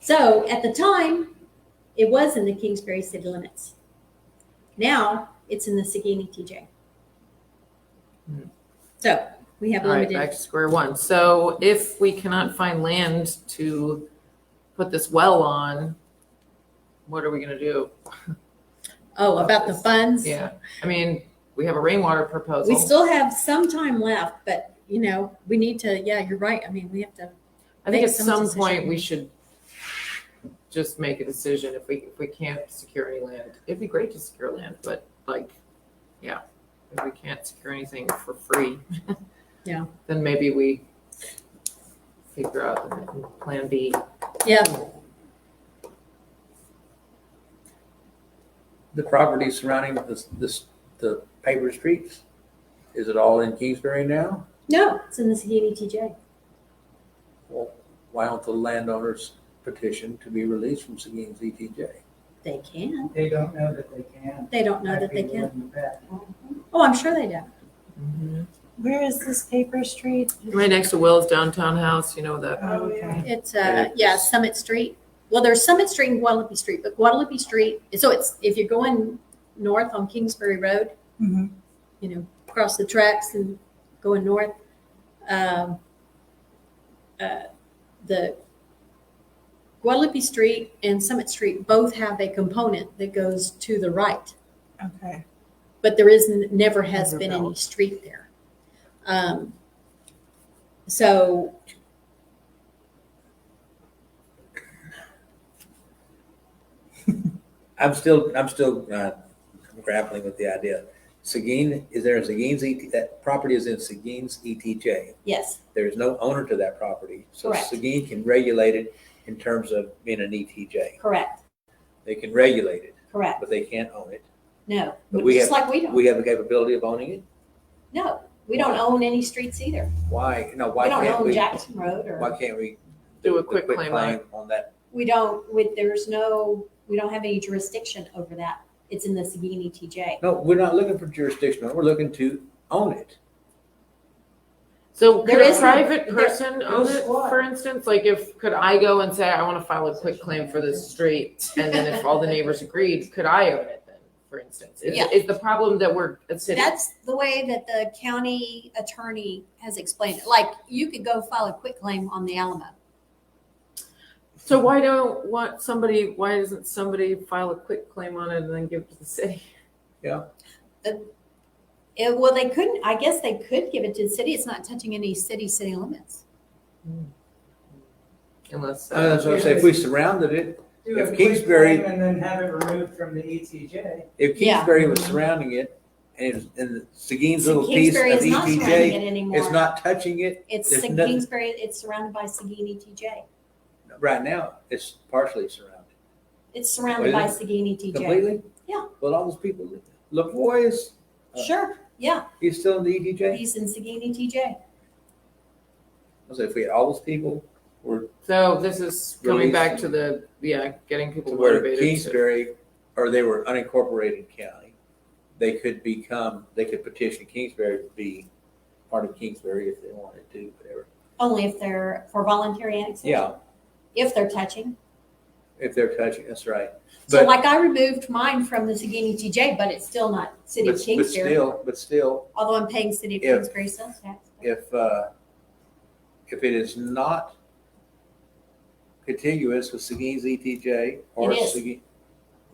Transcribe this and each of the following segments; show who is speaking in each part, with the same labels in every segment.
Speaker 1: So at the time, it was in the Kingsbury city limits. Now it's in the Saguini TJ.
Speaker 2: Hmm.
Speaker 1: So we have
Speaker 2: All right,
Speaker 1: limited.
Speaker 2: back to square one. So if we cannot find land to put this well on, what are we gonna do?
Speaker 1: Oh, about the funds.
Speaker 2: Yeah, I mean, we have a rainwater
Speaker 1: We
Speaker 2: proposal.
Speaker 1: still have some time left, but you know, we need to, yeah, you're right. I mean, we have to,
Speaker 2: I think
Speaker 1: make
Speaker 2: at
Speaker 1: some
Speaker 2: some
Speaker 1: decision.
Speaker 2: point we should just make a decision if we, if we can't secure any land. It'd be great to secure land, but like, yeah, if we can't secure anything for free.
Speaker 1: Yeah.
Speaker 2: Then maybe we figure out the plan B.
Speaker 1: yeah,
Speaker 3: The property surrounding this, this, the paper streets, is it all in Kingsbury now?
Speaker 1: no, it's in the Saguini TJ.
Speaker 3: Well, why don't the landowners petition to be released from Seguin's E ETJ?
Speaker 1: They can.
Speaker 4: They don't know that they can.
Speaker 1: They don't know that they
Speaker 4: I'd be
Speaker 1: can.
Speaker 4: willing to bet.
Speaker 1: Oh, I'm sure they don't.
Speaker 5: Where is this paper street?
Speaker 2: Right next to Will's downtown house, you know, that
Speaker 5: Oh, yeah.
Speaker 1: It's, uh, yeah, Summit Street. Well, there's Summit Street and Guadalupe Street, but Guadalupe Street, so it's, if you're going north on Kingsbury Road,
Speaker 5: Mhm.
Speaker 1: you know, across the tracks and going north, um, uh, the Guadalupe Street and Summit Street both have a component that goes to the right
Speaker 5: Okay.
Speaker 1: but there is n- never has
Speaker 2: Never
Speaker 1: been any
Speaker 2: built.
Speaker 1: street there. Um, so
Speaker 3: I'm still, I'm still uh, grappling with the idea. Seguin, is there a Seguin's ET, that property is in Seguin's ETJ.
Speaker 1: yes,
Speaker 3: There is no owner to that property. So
Speaker 1: Correct.
Speaker 3: Seguin can regulate it in terms of being an ETJ.
Speaker 1: correct,
Speaker 3: They can regulate it,
Speaker 1: correct.
Speaker 3: but they can't own it.
Speaker 1: No,
Speaker 3: But we
Speaker 1: just
Speaker 3: have-
Speaker 1: like we don't.
Speaker 3: We have the capability of owning it?
Speaker 1: no, we don't own any streets either.
Speaker 3: Why, no,
Speaker 1: we
Speaker 3: why
Speaker 1: don't
Speaker 3: can't
Speaker 1: own
Speaker 3: we,
Speaker 1: Jackson Road or
Speaker 3: why can't we?
Speaker 2: Do a
Speaker 3: the
Speaker 2: quick claim
Speaker 3: claim On that,
Speaker 1: we don't. With there's no we don't have any jurisdiction over that. It's in the E Saguini TJ.
Speaker 3: no, we're not looking for jurisdiction, we're looking to own it.
Speaker 2: So
Speaker 1: There
Speaker 2: could a
Speaker 1: is no-
Speaker 2: private
Speaker 1: there-
Speaker 2: person own
Speaker 4: there's
Speaker 2: it,
Speaker 4: what?
Speaker 2: for instance? Like if, could I go and say, I want to file a quick claim for this street? And then if all the neighbors agreed, could I own it then, for instance? Is,
Speaker 1: Yeah.
Speaker 2: is the problem that we're a city?
Speaker 1: That's the way that the county attorney has explained it. Like you could go file a quick claim on the Alamo.
Speaker 2: So why don't, want somebody, why doesn't somebody file a quick claim on it and then give it to the city?
Speaker 1: Yeah, well, they couldn't, I guess they could give it to the city. It's not touching any city, city limits.
Speaker 2: Unless. uh,
Speaker 3: Uh, so I say, if we surrounded it, If
Speaker 4: Do a quick
Speaker 3: Kingsbury-
Speaker 4: claim And then have it removed from the E ETJ.
Speaker 3: if
Speaker 1: Yeah.
Speaker 3: Kingsbury was surrounding it, and, it's- and Seguin's little piece of
Speaker 1: Kingsbury
Speaker 3: E
Speaker 1: is not surrounding
Speaker 3: ETJ
Speaker 1: it
Speaker 3: is
Speaker 1: anymore.
Speaker 3: not touching it
Speaker 1: It's,
Speaker 3: there's
Speaker 1: Sa-
Speaker 3: nothing-
Speaker 1: Kingsbury, it's surrounded by E Saguini TJ.
Speaker 3: right now, it's partially surrounded,
Speaker 1: It's surrounded by E
Speaker 3: Well,
Speaker 1: Saguini TJ.
Speaker 3: completely?
Speaker 1: Yeah.
Speaker 3: But all those people, live there. Lavoy is, uh,
Speaker 1: Sure, yeah,
Speaker 3: he's still in the E ETJ?
Speaker 1: he's in E Saguini TJ.
Speaker 3: I say, if we had all those people were
Speaker 2: So this is coming
Speaker 3: Release.
Speaker 2: back to the, yeah, getting
Speaker 3: to
Speaker 2: people
Speaker 3: where
Speaker 2: motivated. to-
Speaker 3: Kingsbury, or they were unincorporated county, they could become, they could petition Kingsbury to be part of Kingsbury if they wanted to, whatever.
Speaker 1: Only if they're for voluntary annexation.
Speaker 3: Yeah,
Speaker 1: If they're touching.
Speaker 3: if they're touching, that's right.
Speaker 1: So
Speaker 3: But-
Speaker 1: like I removed mine from the Saguini TJ, but it's still not city
Speaker 3: But,
Speaker 1: of
Speaker 3: but
Speaker 1: Kingsbury,
Speaker 3: still, but still,
Speaker 1: although I'm paying city of
Speaker 3: If-
Speaker 1: Kingsbury sales tax.
Speaker 3: if, uh, if it is not contiguous with Seguin's ETJ or
Speaker 1: It is.
Speaker 3: Seguin,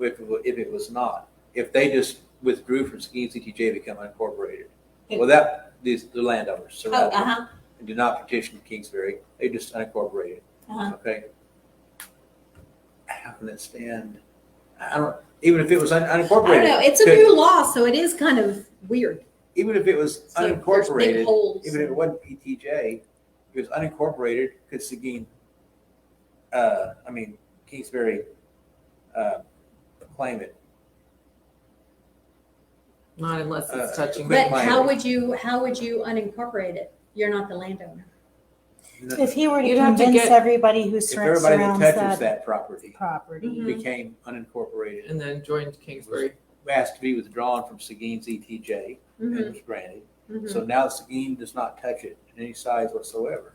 Speaker 3: if, it wa- if it was not, if they just withdrew from Seguin's ETJ, to become unincorporated,
Speaker 1: It-
Speaker 3: without these, the landowners
Speaker 1: Oh,
Speaker 3: surrounding.
Speaker 1: uh-huh,
Speaker 3: and did not petition Kingsbury. They just unincorporated,
Speaker 1: uh-huh.
Speaker 3: okay? How can that stand? I don't, even if it was un-
Speaker 1: I don't know,
Speaker 3: unincorporated,
Speaker 1: it's a
Speaker 3: Could-
Speaker 1: new law, so it is kind of weird.
Speaker 3: even if it was
Speaker 1: So there's big
Speaker 3: unincorporated,
Speaker 1: holes.
Speaker 3: even if it wasn't PTJ, it was unincorporated, could Seguin, uh, I mean, Kingsbury, uh, claim it?
Speaker 2: Not unless it's
Speaker 3: Uh,
Speaker 2: touching.
Speaker 3: quick
Speaker 1: But
Speaker 3: claim.
Speaker 1: how would you, how would you unincorporate it? You're not the landowner.
Speaker 5: If he were to
Speaker 2: You'd have to
Speaker 5: convince
Speaker 2: get-
Speaker 5: everybody who
Speaker 3: If
Speaker 5: sur-
Speaker 3: everybody that
Speaker 5: surrounds
Speaker 3: touches
Speaker 5: that
Speaker 3: that property
Speaker 5: property.
Speaker 1: Mhm.
Speaker 3: became unincorporated,
Speaker 2: And then joined Kingsbury.
Speaker 3: asked to be withdrawn from Seguin's E
Speaker 1: Mm-hmm.
Speaker 3: ETJ, and was granted. So now Seguin does not touch it in any size whatsoever.